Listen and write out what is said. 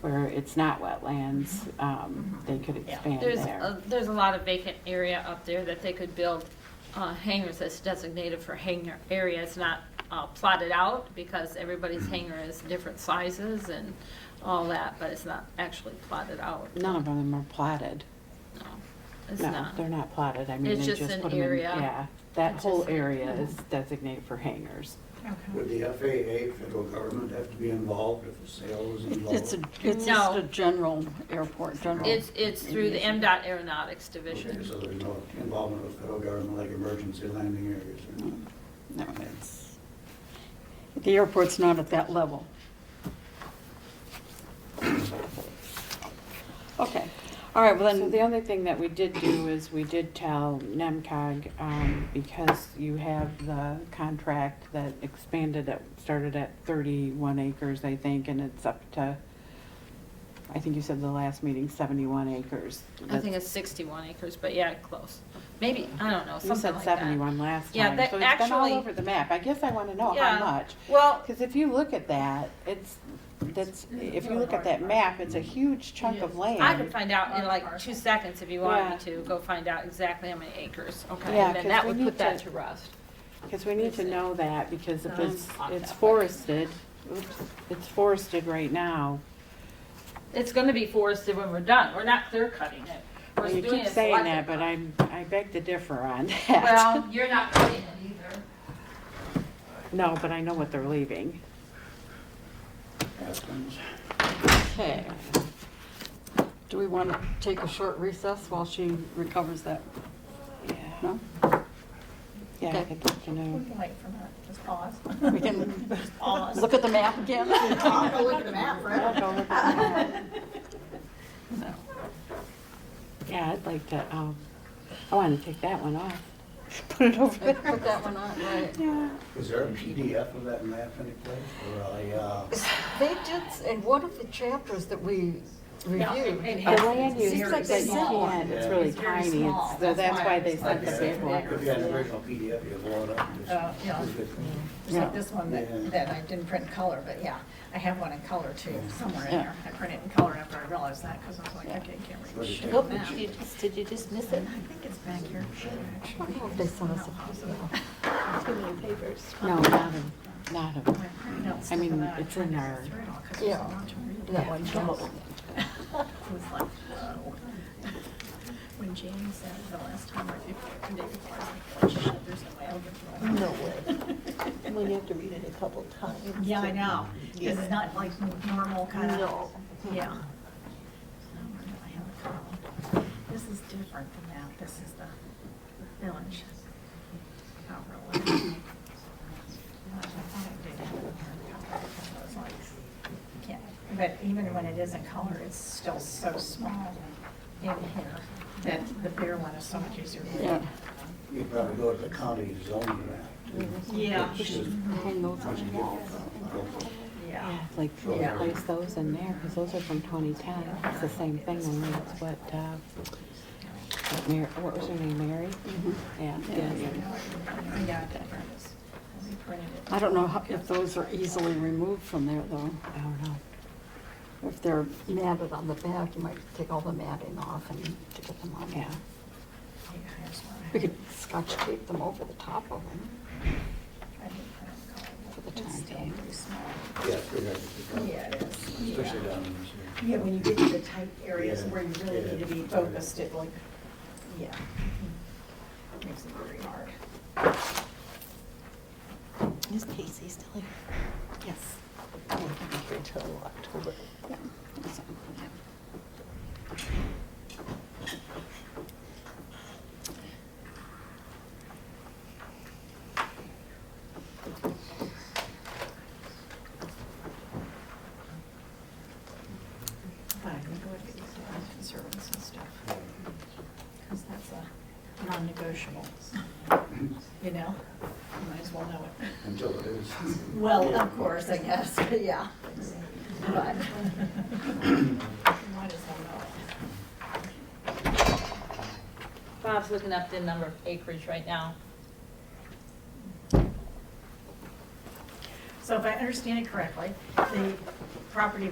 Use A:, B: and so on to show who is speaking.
A: where it's not wetlands, um, they could
B: Yeah.
A: expand
C: There's,
A: there.
C: a- there's a lot of vacant area up there that they could build uh, hangars that's designated for hangar area. It's not uh, plotted out because
A: Mm-hmm.
C: everybody's hangar is different sizes and all that, but it's not actually plotted out.
A: None of them are platted.
C: No, It's
A: No,
C: not.
A: they're not platted. I mean,
C: It's
A: they
C: just
A: just
C: an
A: put them in,
C: area.
A: yeah. That
C: It's
A: whole
C: just an-
A: area is designated for hangars.
B: Okay.
D: Would the FAA, federal government, have to be involved if a sale was involved?
E: It's a, it's
C: No.
E: just a general airport, general.
C: It's, it's through the MDOT Aeronautics Division.
D: Okay, so there's no involvement of federal government like emergency landing areas or not?
E: No, it's, the airport's not at that level. Okay, all right, well
A: So
E: then,
A: the other thing that we did do is we did tell NEMCOG, um, because you have the contract that expanded at, started at thirty-one acres, I think, and it's up to, I think you said the last meeting, seventy-one acres.
C: I think it's 61 acres, but yeah, close. Maybe, I don't know,
A: You
C: something
A: said
C: like that.
A: seventy-one last
C: Yeah,
A: time,
C: that
A: so it's been all
C: actually-
A: over the map. I guess I wanna know how
C: Yeah.
A: much.
C: Well,
A: Because if you look at that, it's, that's, if you look at that map, it's a huge chunk of land.
C: I could find out in like two seconds if you want me
A: Yeah.
C: to, go find out exactly how many acres. Okay.
A: Yeah,
C: And then
A: 'cause
C: that
A: we
C: would
A: need
C: put that
A: to-
C: to rest.
A: Because we need to know that, because if it's,
C: Um,
A: it's forested, oops, it's forested right now.
C: It's gonna be forested when we're done. We're not clear cutting it. We're
A: Well, you
C: doing
A: keep
C: it
A: saying that,
C: selective.
A: but I'm, I beg to differ on that.
C: Well, you're not cutting it either.
A: No, but I know what they're leaving.
D: Aspens?
E: okay. Do we want to take a short recess while she recovers that?
A: Yeah,
E: No?
A: yeah, I
E: Okay.
A: think you can uh,
B: We
A: know.
B: can wait for a minute, just pause.
E: We can
B: Pause.
E: look at the map again?
B: I'll go look at the map
A: I'll
B: forever.
A: go look at that.
E: No.
A: Yeah, I'd like to, um, I want to take that one off.
E: Put it over there. Put that one on, right.
A: Yeah.
D: Is there a PDF of that map anyplace, or a, uh,
E: They did, s- and one of the chapters that we reviewed,
A: The land use
E: Seems like
A: that you
E: small.
A: can't, it's really
B: It's very
A: tiny,
B: small.
A: it's- so that's why they
B: it's
A: sent the
B: like
A: big one.
D: If you had an original PDF, you'd blow it up. and just-
B: Uh, yeah.
D: it's good.
B: It's like this one
D: Yeah.
B: that, that I didn't print in color, but yeah, I have one in color too, somewhere in
E: Yeah.
B: there. I printed it in color after I realized that, because I was like, okay, I can't read.
D: Where'd
B: the
D: you
B: shit
D: take
B: map.
D: the
B: I
D: sheet?
E: did you just miss it?
B: think it's back here,
E: I don't know if they sent us a copy.
B: Too many papers.
A: No, not a, not a,
B: I printed out
A: I
B: stuff
A: mean,
B: and then I
A: it's
B: tried
A: in
B: to get
A: our-
B: through it all 'cause there's
E: Yeah.
B: a lot to read.
E: That one, come
B: Yes.
E: over.
B: It was like, whoa. When James said the last time, or if, the day before, I was like, "Oh, shit, there's no way I'll get through all that."
F: No way. Well, you have to read it a couple times.
B: Yeah, I know, 'cause it's not like normal kind of.
F: No.
B: Yeah. Um, I have a column. This is different than that, this is the village. Not really. I thought I did have it here. I was like, yeah. But even when it is in color, it's still so small in here that the bigger one is so much easier to read.
D: You probably go to the county zoning map. too.
B: Yeah.
D: Which is-
E: Hang those
D: which
E: on
D: is
E: the wall.
D: different.
B: Yeah.
A: yeah, like,
D: Yeah.
A: place those in there, because those are from twenty ten, it's the same thing, only it's what, uh, what Mary, what was her name, Mary? Yeah, yeah.
B: Yeah, I did print this. I reprinted it.
E: I don't know how- if those are easily removed from there, though.
A: I don't know.
E: If they're matted on the back, you might take all the matting off and to get them on.
A: Yeah.
B: Yeah, here's one.
E: We could scotch tape them over the top of them.
B: I did print it in color, but
E: For the
B: it's
E: time
B: still
E: being.
B: pretty small.
D: Yeah, it's pretty hard to pick up,
B: Yeah, it is.
D: Especially down in this area.
B: Yeah, when you get to the tight areas
D: Yeah,
B: where you really
D: yeah.
B: need to be focused, it like, yeah. Makes it very hard.
F: Is Casey still here? Oh,
E: Yes.
F: I think he's here till October.
E: Yeah. that's all.
B: But I'm gonna go with the Eastern conservatives and stuff, because that's a non-negotiable. You know, you might as well know it.
D: Until it is.
B: Well, of course, I guess, but yeah. But. Might as well know it.
C: Bob's looking up the number of acreage right now.
B: So if I understand it correctly, the property